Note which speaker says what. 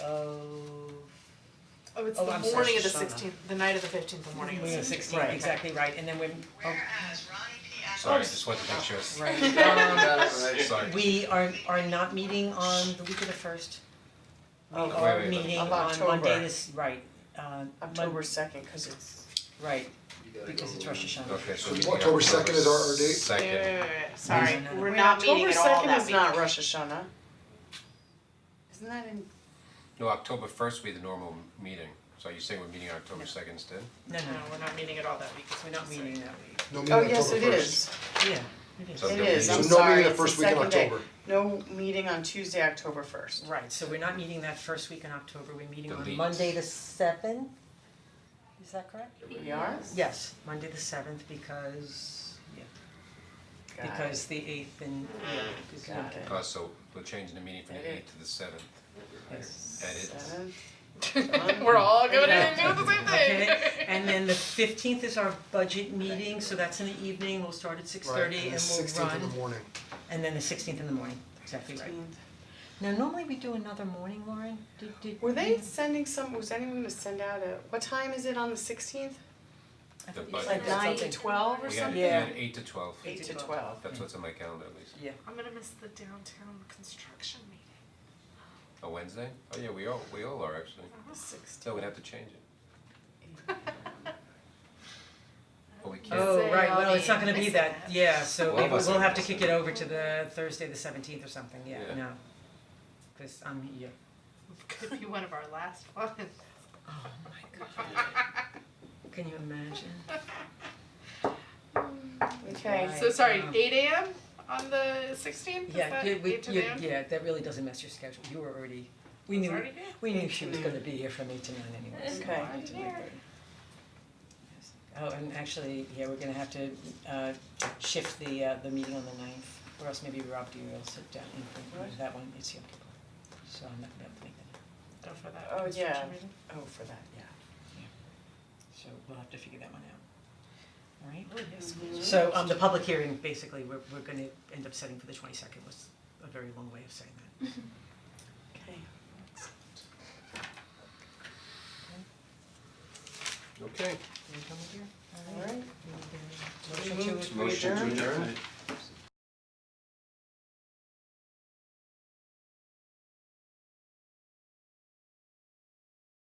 Speaker 1: Oh.
Speaker 2: Oh, it's
Speaker 3: Oh,
Speaker 2: the
Speaker 3: I'm sorry,
Speaker 2: morning of the
Speaker 3: Shoshana.
Speaker 2: sixteenth, the night of the fifteenth, the morning of the
Speaker 3: We're on
Speaker 2: sixteenth.
Speaker 3: sixteen,
Speaker 4: Right.
Speaker 3: exactly right, and then when, oh,
Speaker 5: Whereas Ronnie P. Atkins.
Speaker 1: Sorry, just wanted to make sure.
Speaker 3: right,
Speaker 1: Sorry.
Speaker 3: we are are not meeting on the week of the first.
Speaker 2: Of-
Speaker 3: We are
Speaker 1: Oh, Wait, wait, wait.
Speaker 3: meeting
Speaker 2: Of
Speaker 3: on
Speaker 2: October.
Speaker 3: Monday this, right, uh,
Speaker 2: October
Speaker 3: Mon-
Speaker 2: second, cause it's,
Speaker 3: right, because it's Rosh Hashanah.
Speaker 1: Okay, so
Speaker 6: So
Speaker 1: meeting
Speaker 6: October 2nd is our- our date?
Speaker 1: Second.
Speaker 5: Wait, wait, wait, wait, sorry,
Speaker 3: No, no, no.
Speaker 5: we're
Speaker 2: wait,
Speaker 5: not meeting
Speaker 2: October
Speaker 5: at all
Speaker 2: second
Speaker 5: that
Speaker 2: is not
Speaker 5: week.
Speaker 2: Rosh Hashanah. Isn't that in,
Speaker 1: No, October first will be the normal meeting, so are you saying we're meeting on October second instead?
Speaker 3: No,
Speaker 5: No,
Speaker 3: no,
Speaker 5: we're not meeting at all that week, because
Speaker 3: we're not meeting that week,
Speaker 6: No meeting
Speaker 2: oh,
Speaker 6: October
Speaker 2: yes, it is,
Speaker 6: 1st.
Speaker 3: yeah, it is,
Speaker 1: So
Speaker 2: it
Speaker 1: no
Speaker 2: is,
Speaker 1: meeting.
Speaker 2: I'm
Speaker 6: So no meeting
Speaker 2: sorry,
Speaker 6: the
Speaker 2: it's the
Speaker 6: first week in
Speaker 2: second day.
Speaker 6: October.
Speaker 2: No meeting on Tuesday, October first.
Speaker 3: right, so we're not meeting that first week in October, we're meeting on
Speaker 1: Delete.
Speaker 3: Monday the seventh, is that correct?
Speaker 2: We are?
Speaker 3: Yes, Monday the seventh, because, yeah,
Speaker 2: Got it.
Speaker 3: because the eighth and, yeah, is
Speaker 2: Got
Speaker 3: not-
Speaker 2: it.
Speaker 1: Uh, so we're changing the meeting from the eighth to the seventh,
Speaker 3: yes.
Speaker 1: and it's,
Speaker 2: Seven.
Speaker 5: We're all going
Speaker 3: Yeah.
Speaker 5: in and doing the same thing.
Speaker 3: Okay, and then the fifteenth is our budget meeting, so that's in the evening, we'll start at six
Speaker 6: Right,
Speaker 3: thirty
Speaker 6: and
Speaker 3: and
Speaker 6: the
Speaker 3: we'll
Speaker 6: sixteenth in the
Speaker 3: run,
Speaker 6: morning.
Speaker 3: and then the sixteenth in the morning, exactly right. Now, normally we do another morning, Lauren, did did.
Speaker 2: Were they
Speaker 3: you-
Speaker 2: sending some, was anyone gonna send out a, what time is it on the sixteenth?
Speaker 3: I
Speaker 1: The
Speaker 3: thought you
Speaker 1: budget.
Speaker 3: said
Speaker 1: Like
Speaker 3: something.
Speaker 2: Nine to twelve or
Speaker 1: we had,
Speaker 2: something?
Speaker 1: we had eight to twelve,
Speaker 2: Eight to
Speaker 3: Eight to
Speaker 2: twelve.
Speaker 1: that's what's in my calendar at least.
Speaker 5: I'm gonna miss the downtown construction meeting
Speaker 1: A Wednesday? Oh yeah, we all, we all are actually,
Speaker 5: on the sixteenth.
Speaker 1: so we'd have to change it. But we can't,
Speaker 3: Oh, right, well, it's not gonna be that, yeah, so
Speaker 1: Well,
Speaker 3: maybe we'll have to
Speaker 1: that's-
Speaker 3: kick it over to the Thursday, the seventeenth or something, yeah,
Speaker 1: Yeah.
Speaker 3: no. Cause I'm here,
Speaker 5: Could be one of our last ones.
Speaker 3: can you imagine?
Speaker 2: Okay,
Speaker 3: Right.
Speaker 5: So sorry,
Speaker 3: um,
Speaker 5: eight AM on the sixteenth, is
Speaker 3: Yeah,
Speaker 5: that
Speaker 3: yeah, we,
Speaker 5: eight to
Speaker 3: you-
Speaker 5: nine?
Speaker 3: yeah, that really doesn't mess your schedule, you were already, we
Speaker 5: It's
Speaker 3: knew,
Speaker 5: already here?
Speaker 3: we knew she was gonna be here from eight to nine anyway, so.
Speaker 2: Okay.
Speaker 3: eight to nine thirty. Yes. Oh, and actually, yeah, we're gonna have to uh shift the uh the meeting on the ninth, or else maybe Rob D will sit down and
Speaker 2: What?
Speaker 3: for that one, it's Yom Kippur. So I'm not gonna be able to make that,
Speaker 5: Go for that
Speaker 2: Oh, yeah.
Speaker 5: construction meeting.
Speaker 2: oh, for that, yeah.
Speaker 3: so we'll have to figure that one out. Alright?
Speaker 5: Oh, yes.
Speaker 2: Mm-hmm.
Speaker 3: So um the public hearing, basically, we're we're gonna end up setting for the twenty second was a very long way of saying that.
Speaker 2: Okay.
Speaker 1: okay.
Speaker 3: Can we come up here?
Speaker 2: Alright.
Speaker 3: Motion to
Speaker 2: Motion to adjourn?
Speaker 1: adjourn?